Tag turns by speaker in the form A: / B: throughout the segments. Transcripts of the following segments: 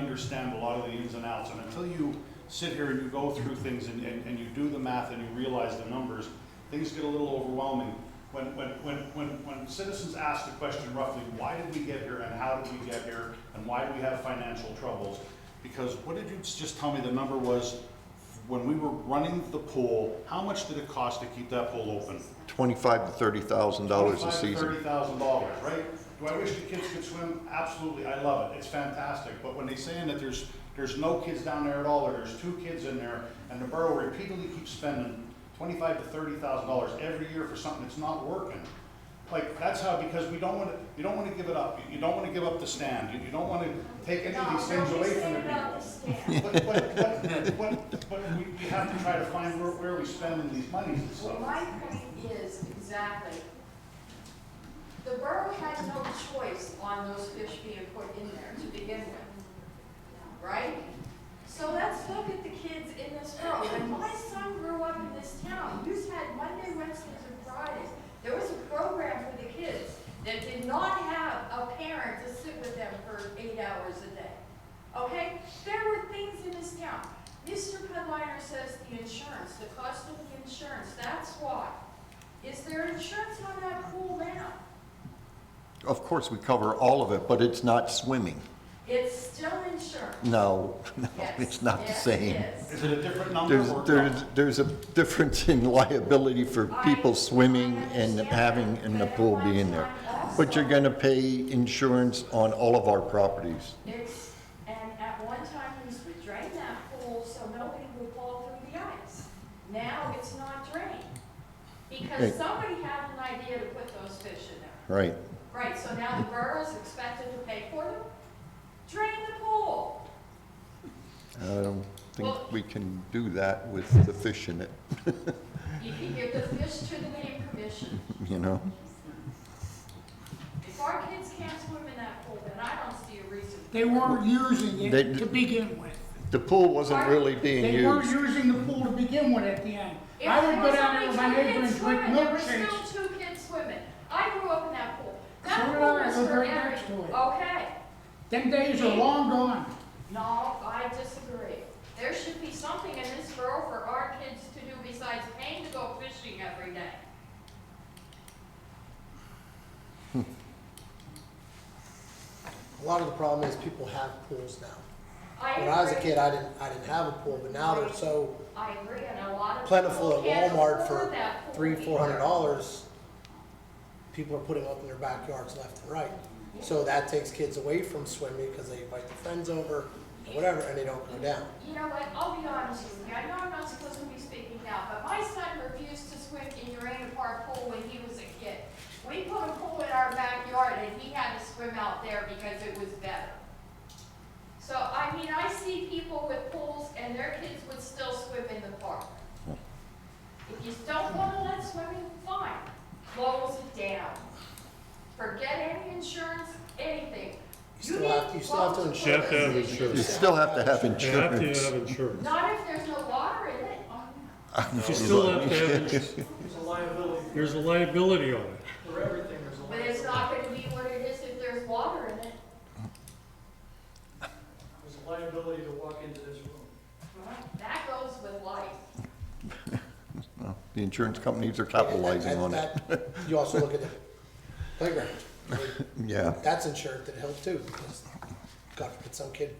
A: understand a lot of the ins and outs, and until you sit here and you go through things and, and, and you do the math and you realize the numbers, things get a little overwhelming. When, when, when, when, when citizens ask the question roughly, why did we get here and how did we get here, and why do we have financial troubles? Because what did you just tell me the number was, when we were running the pool, how much did it cost to keep that pool open?
B: 25 to 30,000 dollars a season.
A: Thirty thousand dollars, right? Do I wish the kids could swim? Absolutely, I love it, it's fantastic, but when they saying that there's, there's no kids down there at all, or there's two kids in there, and the borough repeatedly keeps spending twenty-five to thirty thousand dollars every year for something that's not working. Like, that's how, because we don't wanna, you don't wanna give it up, you don't wanna give up the stand, you, you don't wanna take any of these things away from the people. But, but, but, but, but we, we have to try to find where, where we spending these monies and
C: Well,
A: stuff.
C: my point is exactly, the borough had no choice on those fish being put in there to begin with, right? So let's look at the kids in this borough. When my son grew up in this town, you had Monday, Wednesdays, and Fridays. There was a program for the kids that did not have a parent to sit with them for eight hours a day. Okay? There were things in this town. Mr. Pedliner says the insurance, the cost of the insurance, that's why. Is there insurance on that pool now?
B: Of course, we cover all of it, but it's not swimming.
C: It's still insurance.
B: No, no,
C: Yes,
B: it's not the
C: yes,
B: same.
C: it is.
A: Is it a different number
B: There's,
A: or?
B: there's, there's a difference in liability for people swimming and having, and the pool being there. But you're gonna pay insurance on all of our properties.
C: It's, and at one time, we used to drain that pool so nobody would fall through the ice. Now it's not drained, because
B: Right.
C: somebody had an idea to put those fish in there.
B: Right,
C: Right, so now the borough's expected to pay for them? Drain the pool.
B: I don't
C: Well-
B: think we can do that with the fish in it,
C: You can give the fish to the game commission.
B: you know?
C: If our kids can't swim in that pool, then I don't see a reason.
D: They weren't using
B: They-
D: it to begin with.
B: The pool wasn't really being
D: They weren't
B: used.
D: using the pool to begin with at the end.
C: If
D: I
C: there
D: would go
C: was
D: down there
C: only
D: with my
C: two
D: neighbor
C: kids
D: and drink
C: swimming, there were
D: milkshakes.
C: still two kids swimming. I grew up in that pool.
D: So
C: That
D: did
C: pool
D: I. I
C: was
D: lived
C: for
D: right
C: every,
D: next to it.
C: okay.
D: Them days are long gone.
C: No, I disagree. There should be something in this borough for our kids to do besides paying to go fishing every day.
E: A lot of the problem is people have pools now.
C: I
E: When I was a
C: agree.
E: kid, I didn't, I didn't have a pool, but now they're so
C: I agree, and a lot of
E: plentiful
C: people
E: at
C: can't
E: Walmart
C: afford
E: for
C: that pool
E: three, four hundred
C: either.
E: dollars. People are putting up in their backyards left and right. So that takes kids away from swimming because they invite their friends over or whatever, and they don't go down.
C: You know what, I'll be honest with you, I know I'm not supposed to be speaking now, but my son refused to swim in Urana Park pool when he was a kid. We put a pool in our backyard and he had to swim out there because it was better. So, I mean, I see people with pools and their kids would still swim in the park. If you don't wanna let swimming, fine, close it down. Forget any insurance, anything.
E: You still have, you still have to
C: need
E: insure.
F: You have to have
E: it.
F: insurance.
B: You still have to have
F: You have to
B: insurance.
F: have insurance.
C: Not if there's no water in it.
F: You still have to have insurance.
G: There's a liability
F: There's a liability on it.
G: for everything, there's a
C: But
G: liability.
C: it's not gonna be what it is if there's water in it.
G: There's a liability to walk into this room.
C: That goes with life.
B: The insurance companies are capitalizing on it,
E: That- that- You also look at the playground.
B: yeah.
E: That's insured to the hill too, because God forbid some kid,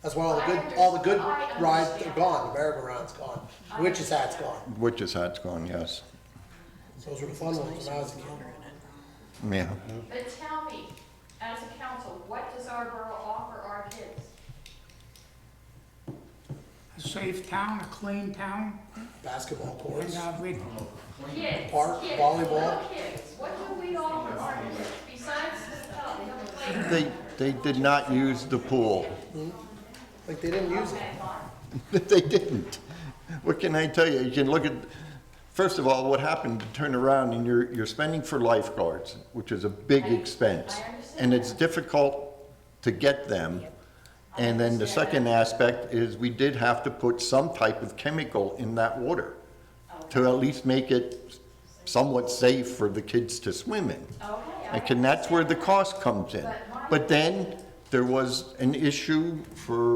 E: that's why all the good, all the good
C: I understand.
E: rides are gone, the merry-go-round's gone,
C: I
E: witch's hat's gone.
B: Witch's hat's gone, yes.
E: Those were the fun ones when I was a kid.
B: Yeah.
C: But tell me, as a council, what does our borough offer our kids?
D: A safe town, a clean town,
E: Basketball
D: and
E: courts,
D: uh, we-
C: Kids,
E: Park,
C: kids,
E: volleyball.
C: little kids, what do we offer our kids besides the, uh, the playground?
B: They, they did not use the pool.
E: like they didn't use it.
C: Okay, fine.
B: They didn't. What can I tell you? You can look at, first of all, what happened, to turn around and you're, you're spending for lifeguards, which is a big
C: I-
B: expense.
C: I understand
B: And it's
C: that.
B: difficult to get them.
C: I
B: And then the
C: understand
B: second aspect is we did have to put some type of chemical in that water to at least make it somewhat safe for the kids to swim in.
C: Okay, I
B: And can- that's where the
C: understand
B: cost comes in. But then, the there was an issue for